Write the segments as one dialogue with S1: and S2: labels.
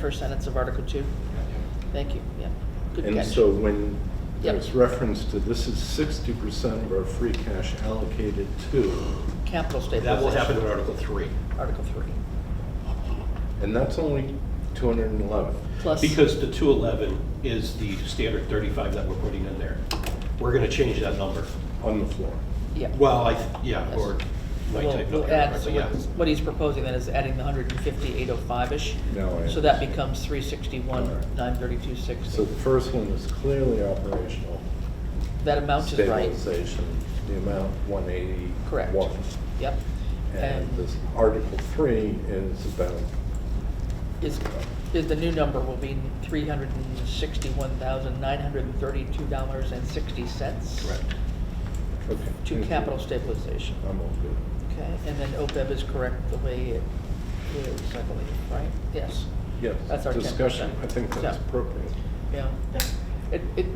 S1: First sentence of Article 2. Thank you, yeah. Good
S2: And
S1: catch.
S2: so when
S1: Yep.
S2: there's reference to this is sixty percent of our free cash allocated to,
S1: Capital
S3: That will
S1: stabilization,
S3: happen in Article 3.
S1: Article 3.
S2: and that's only two hundred and eleven.
S1: Plus,
S3: Because the 211 is the standard 35 that we're putting in there. We're going to change that number.
S2: On the floor.
S1: yeah.
S3: Well, I, th- yeah, or my
S1: We'll-
S3: type
S1: we'll
S3: number,
S1: add-
S3: but
S1: so
S3: yeah.
S1: what- What he's proposing then is adding the 15805-ish.
S2: No, I
S1: So that
S2: understand.
S1: becomes 361,
S2: So
S1: 93260.
S2: the first one is clearly operational.
S1: That amount is right.
S2: Stabilization, the amount one eighty.
S1: Correct. Yep.
S2: And
S1: And
S2: this Article three is about,
S1: is, is the new number will be $361,932.60.
S3: Correct.
S2: okay.
S1: To capital stabilization.
S2: I'm all good.
S1: Okay, and then OPEB is correct the way it is, I believe, right? Yes,
S2: Yes.
S1: That's our 10%.
S2: Discussion, I think that's
S1: Yeah.
S2: appropriate.
S1: yeah. It, it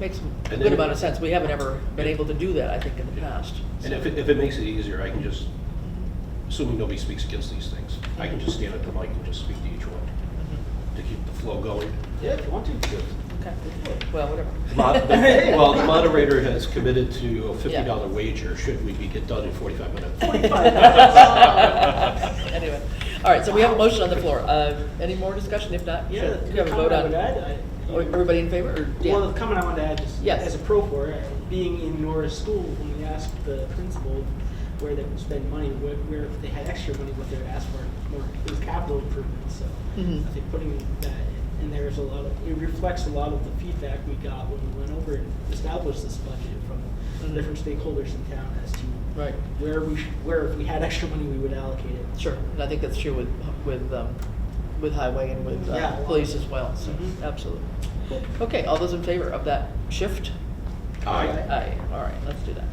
S1: makes a
S3: And
S1: good
S3: then-
S1: amount of sense. We haven't ever been able to do that, I think, in the past.
S3: And if it, if it makes it easier, I can just, assuming nobody speaks against these things, I can just stand at the mic and just speak to each one
S1: Mhm.
S3: to keep the flow going.
S4: Yeah, if you want to.
S1: Okay, well, whatever.
S3: Mod- Well, the moderator has committed to a
S1: Yeah.
S3: $50 wager should we be get done in 45 minutes.
S1: Anyway, all right, so we have a motion on the floor. Uh, Any more discussion? If not, sure,
S4: Yeah.
S1: do
S4: the
S1: you have a vote
S4: comment I
S1: on?
S4: would add, I-
S1: Or- Everybody in favor, or Dan?
S4: Well, the comment I wanted to add, just
S1: Yes.
S4: as a pro for it, being in your school, when we asked the principal where they would spend money, where, where if they had extra money, what they would ask for, more, it was capital improvements, so.
S1: Mhm.
S4: I think putting that in there is a lot of, it reflects a lot of the feedback we got when we went over and established this budget
S1: Mhm.
S4: from different stakeholders in town as to
S1: Right,
S4: where we should, where if we had extra money, we would allocate it.
S1: sure, and I think that's true with, with, um, with highway and with uh,
S4: Yeah.
S1: police as well, so,
S4: Mhm.
S1: absolutely. Okay, all those in favor of that shift?
S3: Aye.
S1: Aye, all right, let's do that.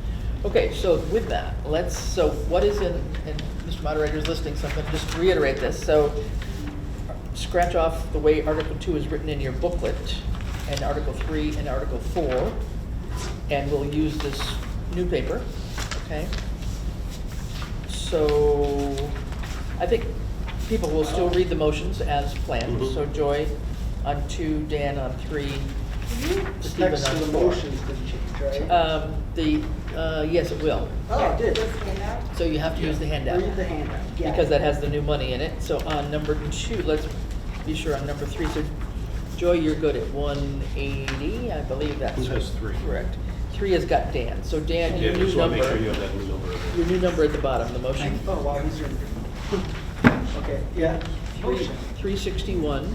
S1: Okay, so with that, let's, so what is in, and Mr. Moderator's listing something, just to reiterate this, so scratch off the way Article Two is written in your booklet, and Article Three and Article Four, and we'll use this new paper, okay? So, I think people will still read the motions as planned,
S3: Mhm.
S1: so Joy on two, Dan on three,
S4: Just
S1: Stephen
S4: next to
S1: on
S4: the
S1: four.
S4: motions didn't change, right?
S1: Um, the, uh, yes, it will.
S4: Oh, it did.
S1: So you have to use the handout.
S4: Read the handout. Yeah.
S1: Because that has the new money in it. So on number two, let's be sure on number three. So Joy, you're good at one eighty, I believe that's.
S3: Who has three?
S1: Correct. Three has got Dan. So Dan,
S3: Yeah,
S1: your new
S3: just want to make sure you
S1: number,
S3: have that new number.
S1: your new number at the bottom, the motion.
S4: Oh, wow, these are. Okay, yeah. Motion.
S1: Three sixty-one,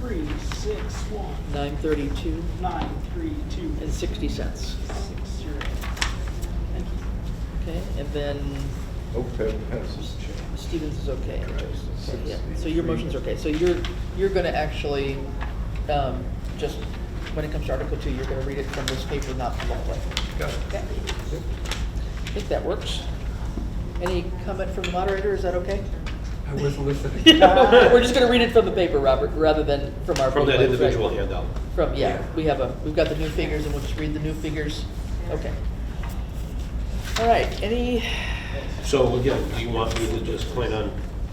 S4: Three, six, one,
S1: nine thirty-two,
S4: nine, three, two,
S1: and sixty cents.
S4: six, zero. Thank
S1: Okay, and then
S2: Okay, passes change.
S1: Stevens is okay.
S2: Correct.
S1: Yeah, so your motion's okay. So you're, you're gonna actually, um, just, when it comes to Article Two, you're gonna read it from this paper, not from the booklet.
S2: Got it.
S1: Okay? I think that works. Any comment from the moderator? Is that okay?
S5: I was listening.
S1: We're just gonna read it from the paper, Robert, rather than from our.
S3: From
S1: booklet,
S3: that
S1: right?
S3: individual handout.
S1: From, yeah,
S5: Yeah.
S1: we have a, we've got the new figures and we'll just read the new figures. Okay. All right, any,
S3: So again, do you want me to just plan on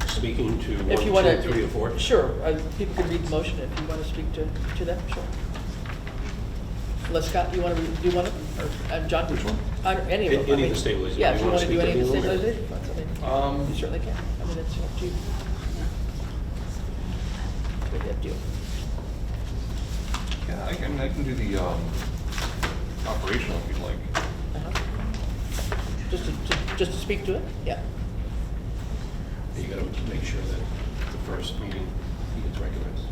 S3: speaking to one,
S1: If you want to.
S3: two, three, or four?
S1: Sure, uh, people can read the motion if you want to speak to, to that, sure. Unless Scott, you want to, do one of them, or, uh, John? Which one? Any of them.
S3: Any
S1: I
S3: of
S1: mean-
S3: the stabilization.
S1: Yeah, if
S3: You
S1: you
S3: wanna
S1: want to do
S3: speak to
S1: any of the
S3: any of them?
S1: stabilization, that's, I mean,
S5: Um,
S1: you certainly can, I mean, it's up to you. Really up to you.
S5: yeah, I can, I can do the, um, operational if you'd like.
S1: Uh-huh. Just to, to- just to speak to it, yeah.
S3: You gotta make sure that the first meeting he gets recognized.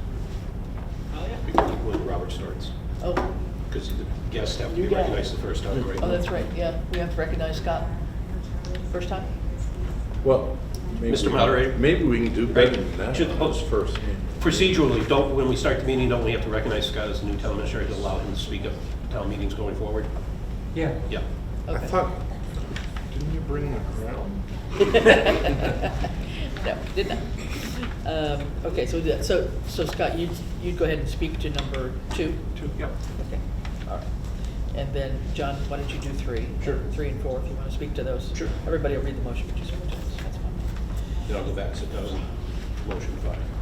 S4: you.
S3: Before- When Robert starts,
S1: Oh,
S3: because the guests have to be
S4: You got it.
S3: recognized the first time, right?
S1: oh, that's right, yeah, we have to recognize Scott. First time?
S2: Well, maybe.
S3: Mr.
S2: we-
S3: Moderator?
S2: Maybe we can do better than that.
S3: Should the
S2: on this
S3: host-
S2: first.
S3: Procedurally, don't, when we start the meeting, don't we have to recognize Scott as the new town administrator to allow him to speak at town meetings going forward?
S5: Yeah.
S3: Yeah.
S2: I
S1: Okay.
S2: thought, didn't you bring the crown?
S1: No, did not. Um, Okay, so, that- so, so Scott, you'd, you'd go ahead and speak to number two?
S3: Two, yep.
S1: Okay, all right. And then, John, why don't you do three?
S3: Sure.
S1: Three and four, if you want to speak to those.
S3: Sure.
S1: Everybody will read the motion, but you speak to those, that's fine.
S3: Then I'll go back, so that was motion five.